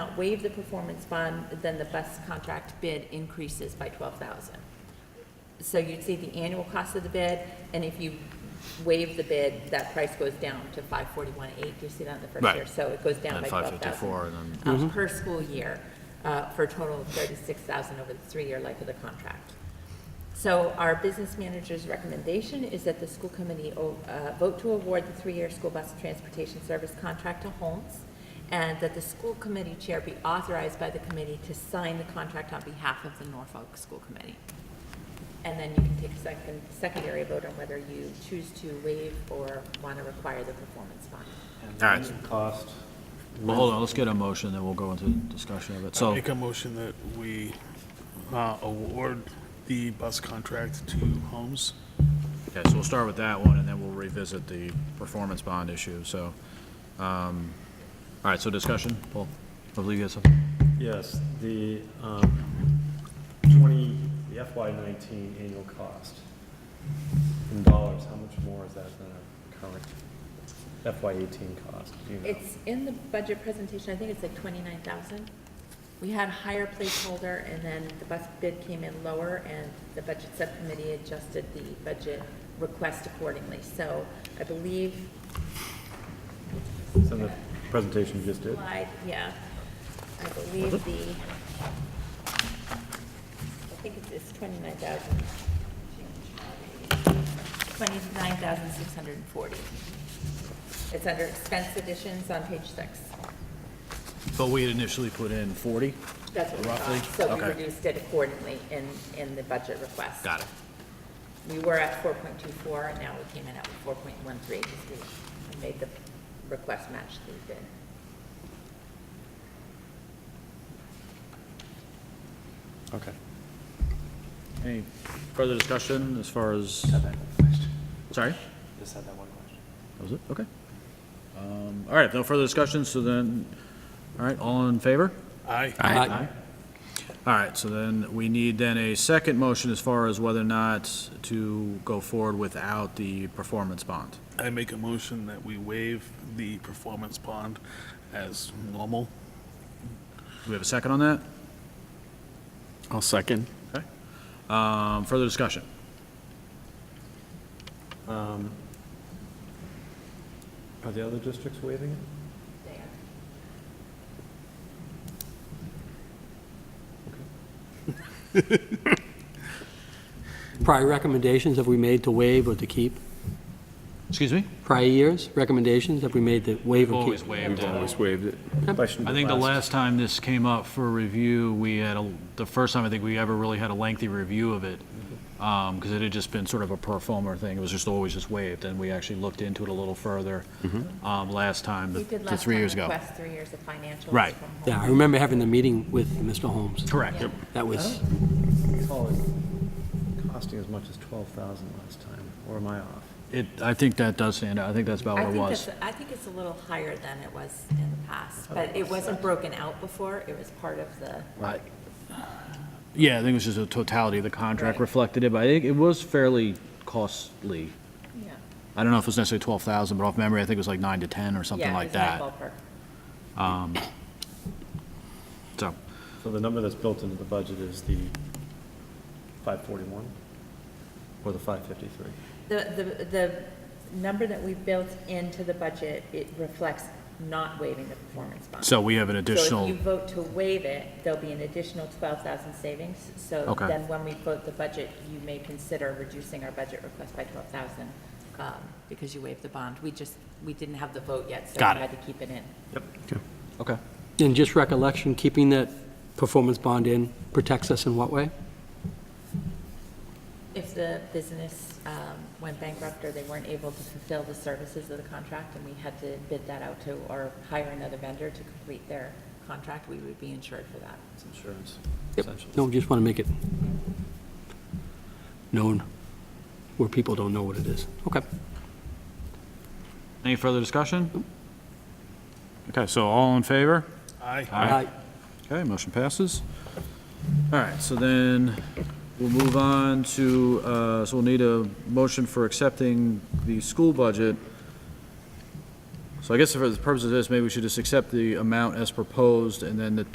not waive the performance bond, then the bus contract bid increases by twelve thousand. So you'd see the annual cost of the bid, and if you waive the bid, that price goes down to five forty-one eight, you see that in the first Right. year? So it goes down And by then twelve thousand. 554, and Um, Per school year, uh, for a total of thirty-six thousand over the three-year life of the contract. So our business manager's recommendation is that the school committee oh, uh, vote to award the three-year school bus transportation service contract to Holmes, and that the school committee chair be authorized by the committee to sign the contract on behalf of the Norfolk School Committee. And then you can take a second, secondary vote on whether you choose to waive or want to require the performance bond. All right. Cost. Well, hold on, let's get a motion, then we'll go into discussion of it. So, Make a motion that we uh, award the bus contract to Holmes. okay, so we'll start with that one, and then we'll revisit the performance bond issue, so. um, All right, so discussion, Paul, I believe you have something. Yes, the um, 20, the FY '19 annual cost in dollars, how much more is that than our current FY '18 cost? Do you know? It's in the budget presentation, I think it's like twenty-nine thousand. We had a higher placeholder, and then the bus bid came in lower, and the budget subcommittee adjusted the budget request accordingly. So I believe, It's in the presentation you just did. slide, yeah, I believe the, I think it's- it's twenty-nine thousand. Twenty-nine thousand six hundred and forty. It's under expense additions on page six. But we had initially put in 40? That's what we Roughly? thought, so we Okay. reduced it accordingly in, in the budget request. Got it. We were at four point two four, and now we came in at four point one three, because we made the request match the bid. Okay. Any further discussion as far as, sorry? Just had that one question. That was it? Okay. Um, All right, no further discussion, so then, all right, all in favor? Aye. All right, so then we need then a second motion as far as whether or not to go forward without the performance bond. I make a motion that we waive the performance bond as normal. Do we have a second on that? I'll second. Okay. Um, Further discussion? Are the other districts waiving it? Prior recommendations have we made to waive or to keep? Excuse me? Prior years, recommendations have we made to waive or keep? waived Always waived it. Question I think the last time this came up for review, we had, a- the first time I think we ever really had a lengthy review of it, because it had just been sort of a performer thing, it was just always just waived, and we actually looked into it a little further Mm-hmm. um, last time, We the did the last three time years ago. request three years of financials from Right. Holmes. Yeah, I remember having the meeting with Mr. Holmes. Correct. That was, Costing as much as 12,000 last time, or am I off? It, I think that does stand out, I think that's about I what Oh, it think was. it's, I think it's a little higher than it was in the past, but Oh, it wasn't broken out before, it was part of the, Yeah, I think it was just the totality of the contract Right. reflected it, but I think it was fairly costly. yeah. I don't know if it was necessarily 12,000, but off memory, I think it was like 9 to 10 or something Yeah, it like was in that. ballpark. So, So the number that's built into the budget is the 541 or the 553? The, the, the number that we built into the budget, it reflects not waiving the performance bond. so we have an So if additional, you vote to waive it, there'll be an additional twelve thousand savings. So Okay. then when we vote the budget, you may consider reducing our budget request by twelve thousand, um, because you waived the bond. We just, we didn't have the vote yet, so Got we it. had to keep it in. Oh, okay. in just recollection, keeping that performance bond in protects us in what way? If the business, um, went bankrupt or they weren't able to fulfill the services of the contract and we had to bid that out to, or hire another vendor to complete their contract, we would be insured for that. It's insurance, Yep. essentially. No, just want to make it known where people don't know what it is. Okay. Any further discussion? Okay, so all in favor? Aye. Aye. Okay, motion passes. All right, so then we'll move on to, uh, so we'll need a motion for accepting the school budget So I guess for the purpose of this, maybe we should just accept the amount as proposed, and then the